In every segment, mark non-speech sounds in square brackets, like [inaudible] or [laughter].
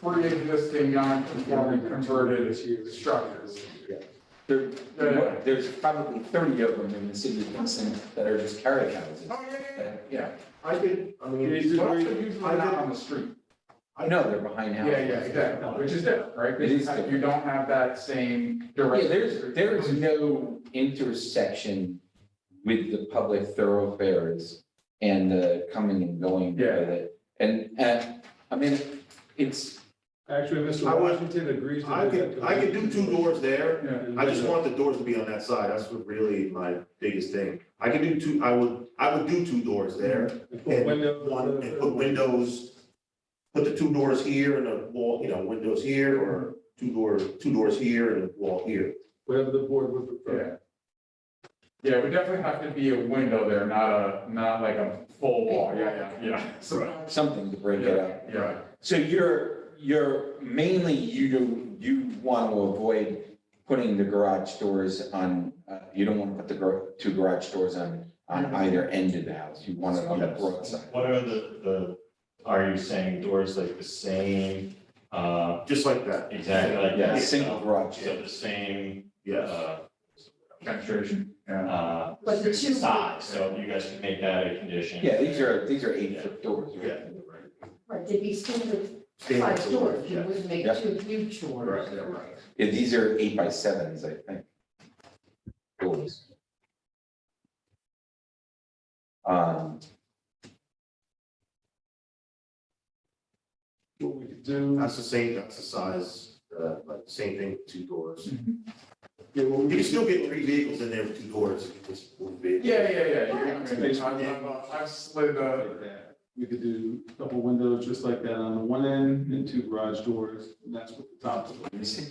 three existing non-conforming converted structures. There, Yeah. there's probably thirty of them in the city of Vincent that are just carriage houses. Oh, yeah, yeah, that- Yeah, I could, I yeah. mean. These are usually I not did- on the street. I know they're behind Yeah, houses. yeah, exactly, which is different, right? It is Because you don't have that same direct. Yeah, there's, there is no intersection with the public thoroughfares and the coming and going with Yeah. it. And, and, I mean, it's, Actually, Mr. I would- Washington agrees to. I could, I could do two doors there. Yeah. I just want the doors to be on that side. That's what really my biggest thing. I could do two, I would, I would do two doors there. And put And windows one, in and the- put windows, put the two doors here and a wall, you know, windows here or two doors, two doors here and a wall here. Whatever the board would prefer. Yeah. Yeah, it would definitely have to be a window there, not a, not like a full wall, yeah, yeah, yeah. So, something to break it Yeah, up. yeah. So you're, you're, mainly you, do- you want to avoid putting the garage doors on, uh, you don't want to put the gar- two garage doors on, on either end of the house. You want it on the Yes. broad side. What are the, the, are you saying doors like the same, uh, Just like that. exactly like Yeah, that? single garage. So the same, Yes. uh, Penetration, yeah. uh, But the two- size, so you guys can make that a condition. Yeah, these are, these are eight foot doors, Yeah. right? Right, they'd be standard Standard size doors, you yeah. wouldn't make Yeah. two huge doors. Right, yeah, right. Yeah, these are eight by sevens, I think. Doors. Um, What we could do. That's the same, that's the size, uh, like same thing, two doors. yeah, what You we can could- still get three vehicles in there with two doors. if you just move it. Yeah, yeah, yeah, yeah. I've- I've, uh, I've slid, uh, We could do a couple windows just like that on the one end and two garage doors, and that's what the top. let me see.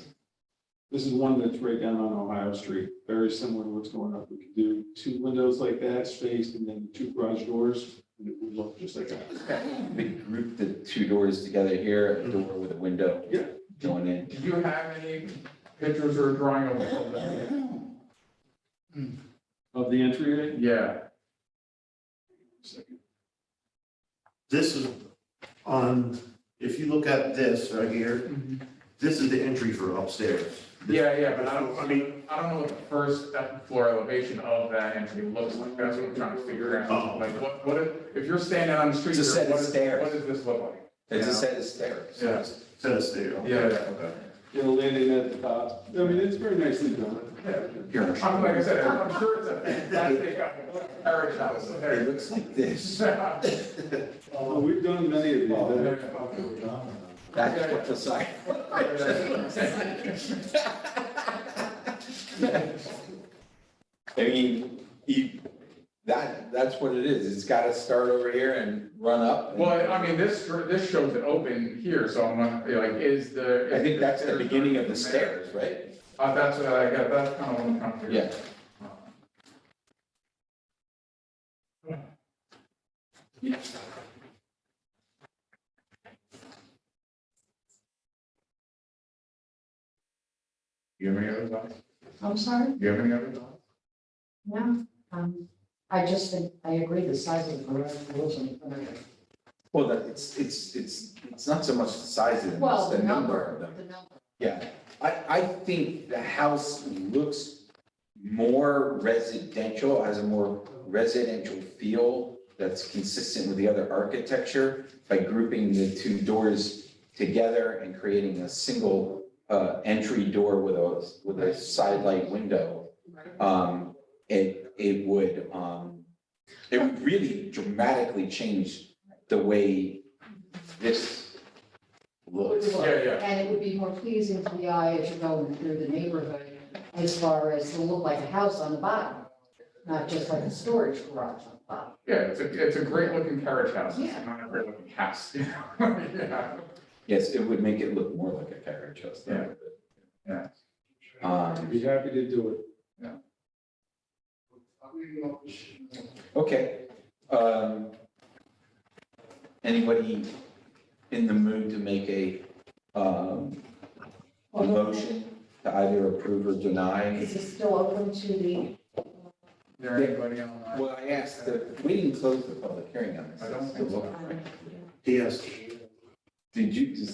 This is one that's right down on Ohio Street, very similar to what's going up. We could do two windows like that spaced and then two garage doors, and it would look just like that. We group the two doors together here, a door with a window. Yeah. Going in. do you have any pictures or drawing of that? Of the entryway, Yeah, This is on, if you look at this right here, this is the entry for upstairs. Mm-hmm. yeah, yeah, but I don't, I I mean- mean, I don't know what the first step floor elevation of that entry looks like, that's what I'm trying to figure Oh. out. Like, what, what, if- if you're standing on the street, It's a here, set of what is, stairs. what does this look like? It's a set of stairs. Yeah. Says there. Yeah, yeah. Okay. you know, landing at the top. I mean, it's very nicely done. Here. I'm like I said, I'm sure it's a fantastic uh, carriage house. It looks like this. Oh, we've done many of these. that- That's what the side. I mean, you, that, that's what it is. It's gotta start over here and run up. [laughs] and- Well, I mean, this, this shows it open here, so I'm like, like, is the. I think that's the beginning of the stairs, right? Uh, that's what I got, that's kind of what I'm trying to figure Yeah. out. You have any other thoughts? I'm sorry, You have any other thoughts? no, um, I just think, I agree the size of the garage doors and the front of it. Well, that, it's, it's, it's, it's not so much the size of them, it's Well, the number of them. The number, Yeah, I, I think the house looks more residential, has a more residential feel that's consistent with the other architecture by grouping the two doors together and creating a single uh, entry door with a, with a side light window. Um, It, it would, um, it would really dramatically change the way this looks. Yeah, yeah. and it would be more pleasing to the eye as you're going through the neighborhood as far as to look like a house on the bottom, not just like a storage garage on the bottom. Yeah, it's a, it's a great looking carriage house, it's Yeah. not a great looking house, [laughs] you know? yeah. Yes, it would make it look more like a carriage house. that would be- Yeah. Um, Be happy to do it. okay. Um, anybody in the mood to make a, um, a motion to either approve or deny? Is it still open to the, There anybody online? Well, I asked, the- we didn't close the public hearing on this. I don't um, Did Yes. you,